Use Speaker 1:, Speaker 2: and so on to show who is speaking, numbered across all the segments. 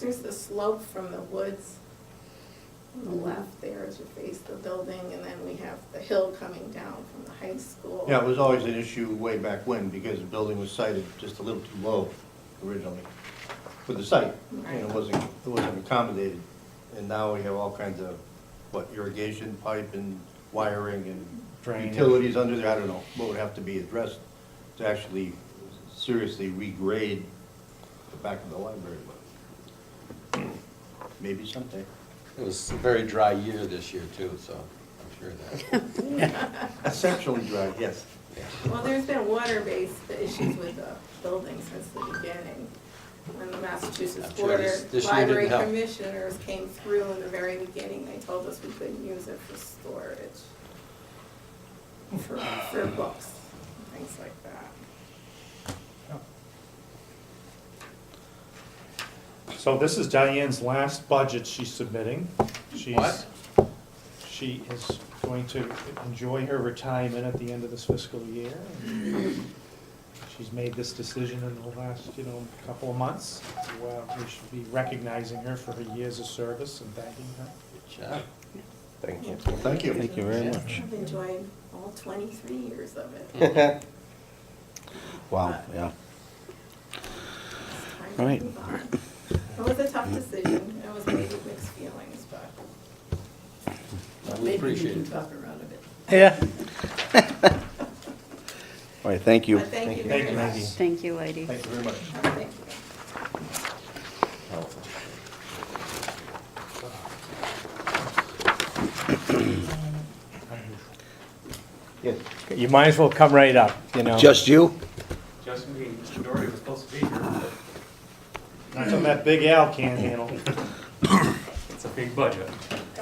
Speaker 1: There's the slope from the woods on the left there as you face the building, and then we have the hill coming down from the high school.
Speaker 2: Yeah, it was always an issue way back when, because the building was sited just a little too low originally for the site. And it
Speaker 1: Right.
Speaker 2: wasn't, it wasn't accommodated. And now we have all kinds of, what, irrigation pipe and wiring and
Speaker 3: Drainage.
Speaker 2: utilities under there, I don't know, what would have to be addressed to actually seriously regrade the back of the library, but maybe someday.
Speaker 4: It was a very dry year this year too, so I'm sure of that.
Speaker 2: Exceptionally dry, yes.
Speaker 1: Well, there's been water-based issues with the building since the beginning. When the Massachusetts
Speaker 4: I'm sure
Speaker 1: Board
Speaker 4: this-
Speaker 1: of
Speaker 4: this year didn't
Speaker 1: Library
Speaker 4: help.
Speaker 1: Commissioners came through in the very beginning, they told us we couldn't use it for storage, for, for books, things like that.
Speaker 3: So this is Diane's last budget she's submitting. She's-
Speaker 4: What?
Speaker 3: She is going to enjoy her retirement at the end of this fiscal year. She's made this decision in the last, you know, couple of months. Well, we should be recognizing her for her years of service and thanking her.
Speaker 4: Good job.
Speaker 5: Thank you.
Speaker 2: Well, thank you.
Speaker 5: Thank you very much.
Speaker 1: I've enjoyed all twenty-three years of it.
Speaker 5: Wow, yeah.
Speaker 1: It's time to
Speaker 5: Right.
Speaker 1: move on. It was a tough decision, it was made with mixed feelings, but.
Speaker 4: We appreciate it.
Speaker 1: talk around a bit.
Speaker 5: Yeah. All right, thank you.
Speaker 1: But thank you
Speaker 3: Thank
Speaker 1: very
Speaker 3: you,
Speaker 1: much.
Speaker 3: Maggie.
Speaker 6: Thank you, lady.
Speaker 2: Thank you very much.
Speaker 1: Oh, Thank you.
Speaker 7: You might as well come right up, you know.
Speaker 5: Just you?
Speaker 8: Just me, Mr. Doherty was supposed to be here, but
Speaker 3: Not something that Big Al can't handle.
Speaker 8: it's a big budget.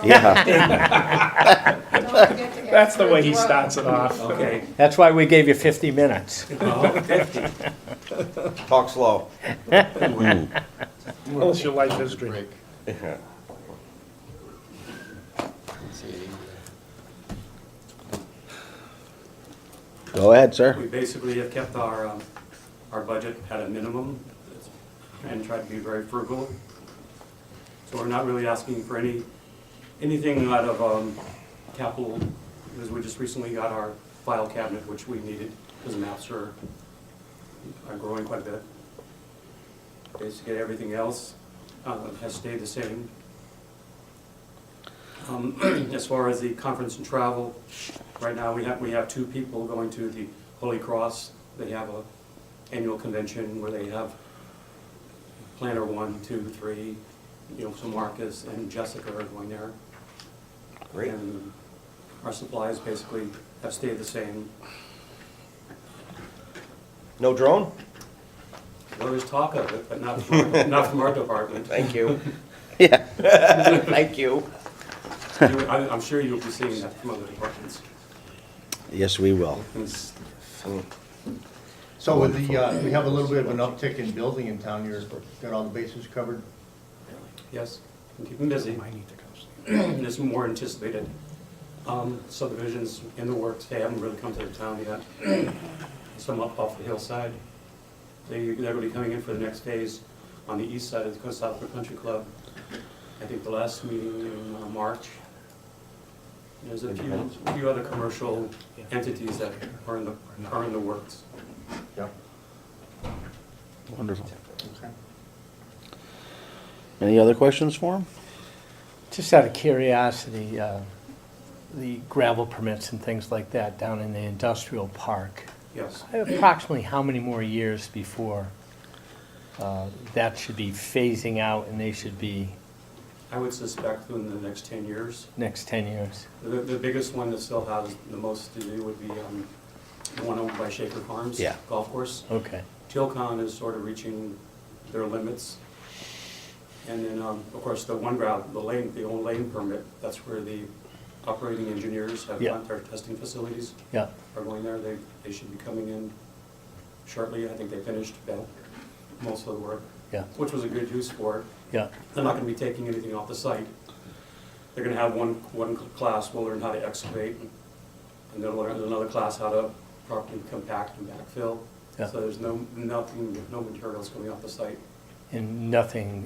Speaker 5: Yeah.
Speaker 1: Don't forget to
Speaker 3: That's
Speaker 1: ask
Speaker 3: the
Speaker 1: for a
Speaker 3: way he
Speaker 1: drawing.
Speaker 3: starts it off.
Speaker 8: Okay.
Speaker 7: That's why we gave you 50 minutes.
Speaker 2: Talk slow.
Speaker 3: Tell us your life history.
Speaker 4: Break. See you later.
Speaker 5: Go ahead, sir.
Speaker 8: We basically have kept our, um, our budget at a minimum and tried to be very frugal. So we're not really asking for any, anything out of um, capital, because we just recently got our file cabinet, which we needed, because maps are, are growing quite a bit. Basically, everything else uh, has stayed the same. Um, As far as the conference and travel, right now, we have, we have two people going to the Holy Cross. They have a annual convention where they have planner one, two, three, you know, so Marcus and Jessica are going there.
Speaker 5: Great.
Speaker 8: And our supplies basically have stayed the same.
Speaker 5: No drone?
Speaker 8: There was talk of it, but not from, our- not from our department.
Speaker 5: Thank you. Yeah. Thank you.
Speaker 8: You- I- I'm sure you'll be seeing that from other departments.
Speaker 5: Yes, we will.
Speaker 8: It's-
Speaker 2: So with the, uh, we have a little bit of an uptick in building in town, you're, got all the bases covered?
Speaker 8: Yes, keep them busy. There's more anticipated um, subdivisions in the works. They haven't really come to the town yet. Some up off the hillside. They, they're gonna be coming in for the next phase on the east side of the Southwood Country Club. I think the last meeting in uh, March. There's a few, few other commercial entities that are in the, are in the works.
Speaker 2: Yep.
Speaker 5: Wonderful.
Speaker 2: Okay.
Speaker 5: Any other questions for him?
Speaker 7: Just out of curiosity, uh, the gravel permits and things like that down in the industrial park,
Speaker 8: Yes.
Speaker 7: approximately how many more years before uh, that should be phasing out and they should be
Speaker 8: I would suspect within the next ten years.
Speaker 7: next 10 years?
Speaker 8: The, the biggest one that still has the most to do would be um, the one owned by Shaker Farms.
Speaker 5: Yeah.
Speaker 8: Golf course.
Speaker 7: Okay.
Speaker 8: Tilcon is sort of reaching their limits. And then, um, of course, the one route, the lane, the old lane permit, that's where the operating engineers have
Speaker 7: Yeah.
Speaker 8: got their testing facilities
Speaker 7: Yeah,
Speaker 8: are going there. They, they should be coming in shortly. I think they finished about most of the work,
Speaker 7: yeah,
Speaker 8: which was a good use for it.
Speaker 7: yeah.
Speaker 8: They're not gonna be taking anything off the site. They're gonna have one, one class will learn how to excavate, and they'll learn another class how to properly compact and backfill.
Speaker 7: Yeah.
Speaker 8: So there's no, nothing, no materials coming off the site.
Speaker 7: And nothing